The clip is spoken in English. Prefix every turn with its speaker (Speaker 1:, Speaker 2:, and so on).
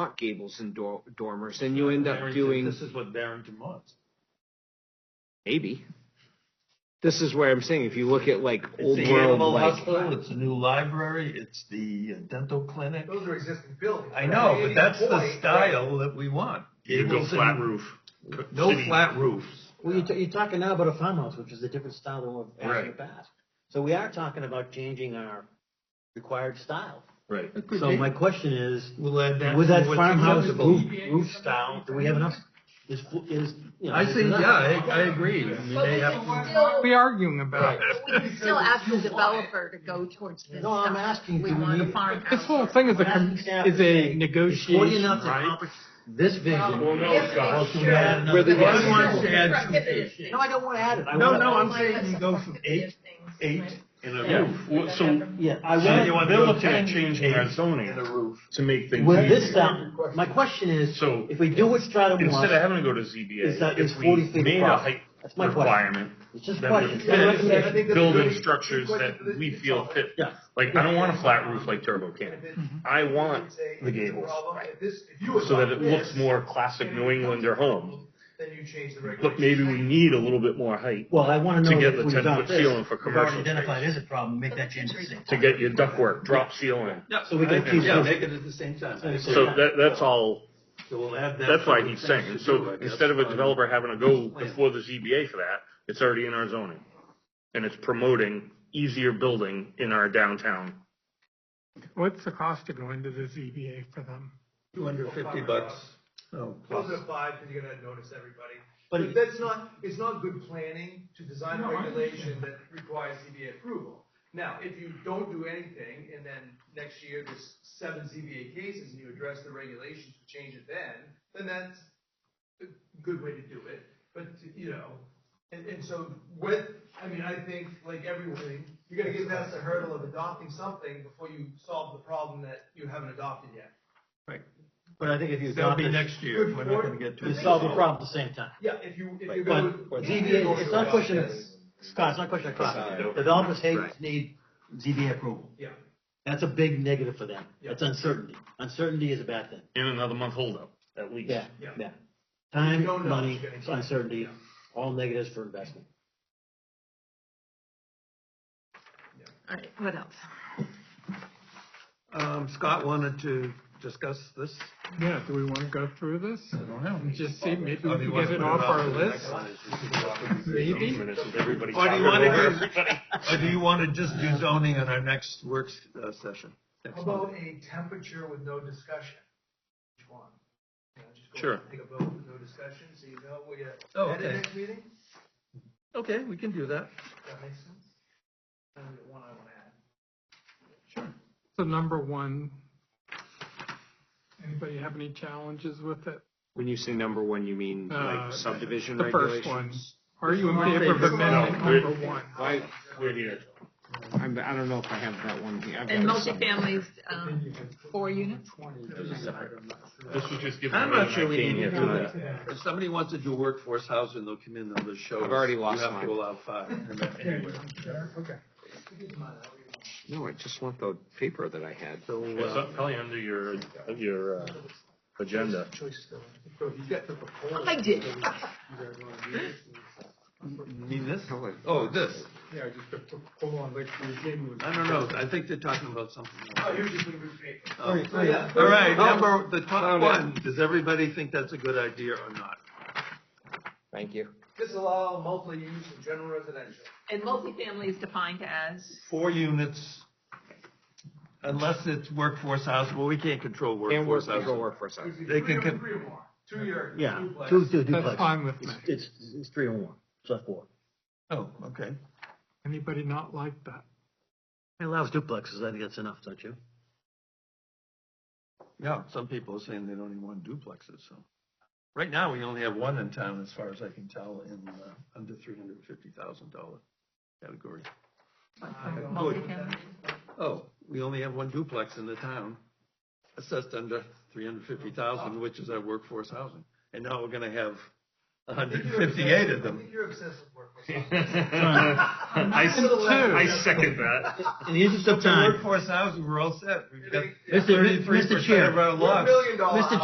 Speaker 1: not gables and dor- dormers, and you end up
Speaker 2: Barrington-
Speaker 1: doing
Speaker 2: This is what Barrington was.
Speaker 1: maybe. This is where I'm saying if you look at like
Speaker 2: It's
Speaker 1: old
Speaker 2: the
Speaker 1: world,
Speaker 2: animal
Speaker 1: like
Speaker 2: hospital, it's the new library, it's the uh, dental clinic.
Speaker 3: Those are existing buildings.
Speaker 2: I know, but that's the
Speaker 3: Right.
Speaker 2: style that we want.
Speaker 4: You go
Speaker 2: Gables
Speaker 4: flat
Speaker 2: and-
Speaker 4: roof.
Speaker 2: No
Speaker 4: City.
Speaker 2: flat roofs.
Speaker 5: Well, you're, t- you're talking now about a farmhouse, which is a different style than we've had in the
Speaker 2: Right.
Speaker 5: past. So we are talking about changing our required style.
Speaker 2: Right.
Speaker 5: So my question is,
Speaker 2: We'll add that.
Speaker 5: with
Speaker 2: to
Speaker 5: that
Speaker 2: what's
Speaker 5: farmhouse
Speaker 2: acceptable.
Speaker 5: roof, roof style, do we have enough? Is, is, you know.
Speaker 2: I
Speaker 5: is
Speaker 2: see, yeah,
Speaker 5: enough?
Speaker 2: I, I agree. I mean,
Speaker 6: But
Speaker 2: they
Speaker 6: we
Speaker 2: have
Speaker 6: can
Speaker 2: to.
Speaker 6: still,
Speaker 3: We arguing about
Speaker 2: Right.
Speaker 3: it.
Speaker 6: but we can still ask the developer to go towards this.
Speaker 5: No, I'm
Speaker 6: stuff.
Speaker 5: asking,
Speaker 6: We
Speaker 5: do we
Speaker 6: want
Speaker 5: need
Speaker 6: a
Speaker 5: it?
Speaker 6: farmhouse.
Speaker 3: This whole thing is a, com- is a
Speaker 5: It's forty
Speaker 3: negotiation,
Speaker 5: enough to
Speaker 3: right?
Speaker 5: accomplish this vision.
Speaker 6: We have to make
Speaker 2: Well, can we add
Speaker 6: sure that
Speaker 2: another
Speaker 1: Where the
Speaker 2: one?
Speaker 1: other one's
Speaker 2: One wants to
Speaker 6: prohibited
Speaker 2: add some
Speaker 6: things.
Speaker 2: things.
Speaker 5: No, I don't wanna add it. I
Speaker 2: No,
Speaker 5: wanna-
Speaker 2: no, I'm
Speaker 6: Like
Speaker 2: saying you
Speaker 6: some
Speaker 2: go from eight,
Speaker 6: prohibitive things.
Speaker 2: eight and a
Speaker 4: Yeah,
Speaker 2: roof.
Speaker 4: well, so,
Speaker 5: Yeah, I
Speaker 4: so you
Speaker 5: want,
Speaker 4: want
Speaker 2: Bill
Speaker 4: to
Speaker 2: Ten,
Speaker 4: change our
Speaker 2: eight,
Speaker 4: zoning
Speaker 2: and a roof.
Speaker 4: to make things
Speaker 5: with this
Speaker 4: easier.
Speaker 5: style, my question is,
Speaker 4: So
Speaker 5: if we do what Strata
Speaker 4: instead of
Speaker 5: wants,
Speaker 4: having to go to
Speaker 5: Is that
Speaker 4: ZBA,
Speaker 5: it's
Speaker 4: if
Speaker 5: 40
Speaker 4: we
Speaker 5: feet
Speaker 4: made a
Speaker 5: across.
Speaker 4: height
Speaker 5: that's my question.
Speaker 4: requirement,
Speaker 5: It's just
Speaker 4: then we
Speaker 5: questions. It's a
Speaker 3: Yeah,
Speaker 4: can
Speaker 3: recommendation. I
Speaker 5: recommendation.
Speaker 3: think that's a
Speaker 4: building
Speaker 3: really good
Speaker 4: structures
Speaker 3: question
Speaker 4: that
Speaker 3: for this
Speaker 4: we
Speaker 3: to
Speaker 4: feel
Speaker 3: solve.
Speaker 4: fit.
Speaker 5: Yeah.
Speaker 4: Like, I don't want a flat roof like Turbo Cannon.
Speaker 3: Mm-hmm.
Speaker 4: I want the gables so that it looks more classic New Englander home.
Speaker 3: Then you change the
Speaker 4: But maybe we need a little bit more height
Speaker 5: Well, I wanna know
Speaker 4: to get
Speaker 5: if
Speaker 4: the
Speaker 5: we've
Speaker 4: ten
Speaker 5: done
Speaker 4: foot ceiling
Speaker 5: this,
Speaker 4: for
Speaker 5: we've already
Speaker 4: commercial
Speaker 5: identified
Speaker 4: space,
Speaker 5: as a problem, make that change at the same
Speaker 4: to
Speaker 5: time.
Speaker 4: get your ductwork, drop ceiling.
Speaker 5: So we can keep
Speaker 2: Yeah,
Speaker 5: those-
Speaker 2: make it at the same time.
Speaker 4: So that, that's all,
Speaker 2: So we'll add that.
Speaker 4: that's why
Speaker 2: to the
Speaker 4: he's
Speaker 2: things
Speaker 4: saying,
Speaker 2: to do,
Speaker 4: so
Speaker 2: I guess.
Speaker 4: instead of a developer having to go before the ZBA for that, it's already in our zoning. And it's promoting easier building in our downtown.
Speaker 3: What's the cost of going to the ZBA for them?
Speaker 2: Two hundred fifty bucks. Oh,
Speaker 7: Close
Speaker 2: plus.
Speaker 7: at five, because you're gonna notice everybody.
Speaker 5: But
Speaker 7: But that's not, it's not good planning to design a
Speaker 3: No, I
Speaker 7: regulation that requires ZBA approval. Now, if you don't do anything, and then next year there's seven ZBA cases, and you address the regulations, and change it then, then that's a good way to do it, but, you know, and, and so with, I mean, I think, like everyone, you're gonna get past the hurdle of adopting something before you solve the problem that you haven't adopted yet.
Speaker 5: But I think if you
Speaker 2: That'll
Speaker 5: adopt
Speaker 2: be
Speaker 5: this,
Speaker 2: next year. We're not gonna get to.
Speaker 5: you
Speaker 2: it.
Speaker 5: solve the problem at the same time.
Speaker 7: Yeah, if you, if you're
Speaker 5: But
Speaker 7: gonna.
Speaker 5: ZBA, it's not a question of cost, it's not a question of
Speaker 2: Right.
Speaker 5: cost. Developers hate,
Speaker 1: Right.
Speaker 5: need ZBA approval.
Speaker 7: Yeah.
Speaker 5: That's a big negative for them.
Speaker 7: Yeah.
Speaker 5: That's uncertainty. Uncertainty is a bad thing.
Speaker 4: In another month holdup, at least.
Speaker 5: Yeah,
Speaker 7: Yeah.
Speaker 5: yeah. Time,
Speaker 7: You don't know
Speaker 5: money,
Speaker 7: what's gonna happen.
Speaker 5: uncertainty,
Speaker 7: Yeah.
Speaker 5: all negatives for investment.
Speaker 6: All right, what else?
Speaker 2: Um, Scott wanted to discuss this.
Speaker 3: Yeah, do we want to go through this?
Speaker 2: I don't know.
Speaker 3: And just see, maybe we
Speaker 2: Or do you
Speaker 3: can
Speaker 2: wanna
Speaker 3: get it
Speaker 2: put
Speaker 3: off
Speaker 2: up
Speaker 3: our
Speaker 2: to the
Speaker 3: list,
Speaker 2: next one?
Speaker 3: maybe?
Speaker 4: This is everybody
Speaker 2: Or do you
Speaker 4: talking
Speaker 2: wanna
Speaker 4: over
Speaker 2: do-
Speaker 4: everybody.
Speaker 2: Or do you want to just do zoning in our next works uh, session? next
Speaker 7: How
Speaker 2: month?
Speaker 7: about a temperature with no discussion? Which one? You know, just go
Speaker 4: Sure.
Speaker 7: Take a vote with no discussion, so you know where you're
Speaker 2: Oh,
Speaker 7: at the
Speaker 2: okay.
Speaker 7: next meeting?
Speaker 2: Okay, we can do that.
Speaker 7: That makes sense? And the one I wanna add.
Speaker 3: So number one, anybody have any challenges with it?
Speaker 1: when you say number one, you mean
Speaker 3: Uh,
Speaker 1: like subdivision
Speaker 3: The first
Speaker 1: regulations.
Speaker 3: one. Are you in favor of amendment
Speaker 4: No, it-
Speaker 3: number one?
Speaker 1: I,
Speaker 4: We're here.
Speaker 1: I'm, I don't know if I have that one here. I've
Speaker 6: And
Speaker 1: got some.
Speaker 6: multifamilies, um, four units?
Speaker 4: This was just given.
Speaker 2: I'm
Speaker 4: to me
Speaker 2: not
Speaker 4: when
Speaker 2: sure
Speaker 4: I
Speaker 2: we
Speaker 4: came
Speaker 2: need to
Speaker 4: here
Speaker 2: do
Speaker 4: tonight.
Speaker 2: that. If somebody wants to do workforce housing, they'll come in, and they'll just show.
Speaker 1: I've
Speaker 2: us.
Speaker 1: already lost
Speaker 2: You have
Speaker 1: mine.
Speaker 2: to allow five. and that's anywhere.
Speaker 3: Okay.
Speaker 1: No, I just want the paper that I had.
Speaker 2: So,
Speaker 4: It's
Speaker 2: uh,
Speaker 4: up- probably under your, your, uh, agenda.
Speaker 7: So if you get the proposal.
Speaker 6: I did.
Speaker 2: mean this? Oh, this.
Speaker 3: Yeah, just hold on, like, we're getting.
Speaker 2: I don't know. I think they're talking about something.
Speaker 7: Oh,
Speaker 2: else.
Speaker 7: you're just gonna read paper.
Speaker 2: Oh.
Speaker 7: So, yeah.
Speaker 2: All right,
Speaker 1: Oh.
Speaker 2: number, the top
Speaker 1: Found it.
Speaker 2: one, does everybody think that's a good idea or not?
Speaker 1: Thank you.
Speaker 7: Disallow multi-use in general residential.
Speaker 6: And multifamily is defined as?
Speaker 2: Four units, unless it's workforce housing, well, we can't control
Speaker 1: And work,
Speaker 2: workforce
Speaker 1: go
Speaker 2: housing.
Speaker 1: work for a second.
Speaker 7: It would be
Speaker 2: They can
Speaker 7: three or-
Speaker 2: con-
Speaker 7: Three or more, two year.
Speaker 5: Yeah,
Speaker 7: duplex.
Speaker 5: two, two duplexes.
Speaker 3: That's fine with me.
Speaker 5: It's- It's, it's three or one, it's not four.
Speaker 2: Oh, okay.
Speaker 3: Anybody not like that?
Speaker 5: It allows duplexes, I think that's enough, don't you?
Speaker 2: Yeah, some people are saying they don't even want duplexes, so. Right now, we only have one in town, as far as I can tell, in, uh, under three hundred and fifty thousand dollar category.
Speaker 7: Uh,
Speaker 6: Multifamily.
Speaker 2: Oh, we only have one duplex in the town, assessed under three hundred and fifty thousand, which is our workforce housing. And now we're gonna have hundred and fifty-eight of
Speaker 7: I think
Speaker 2: them.
Speaker 7: you're obsessed with workforce.
Speaker 4: I, s- I second that.
Speaker 5: In the interest of time.
Speaker 2: Workforce housing, we're all set. We've got
Speaker 7: Mr.
Speaker 5: Mr.
Speaker 2: thirty-three percent
Speaker 5: Chair.
Speaker 2: of our
Speaker 7: We're a
Speaker 2: lots.
Speaker 7: billion dollar
Speaker 5: Mr.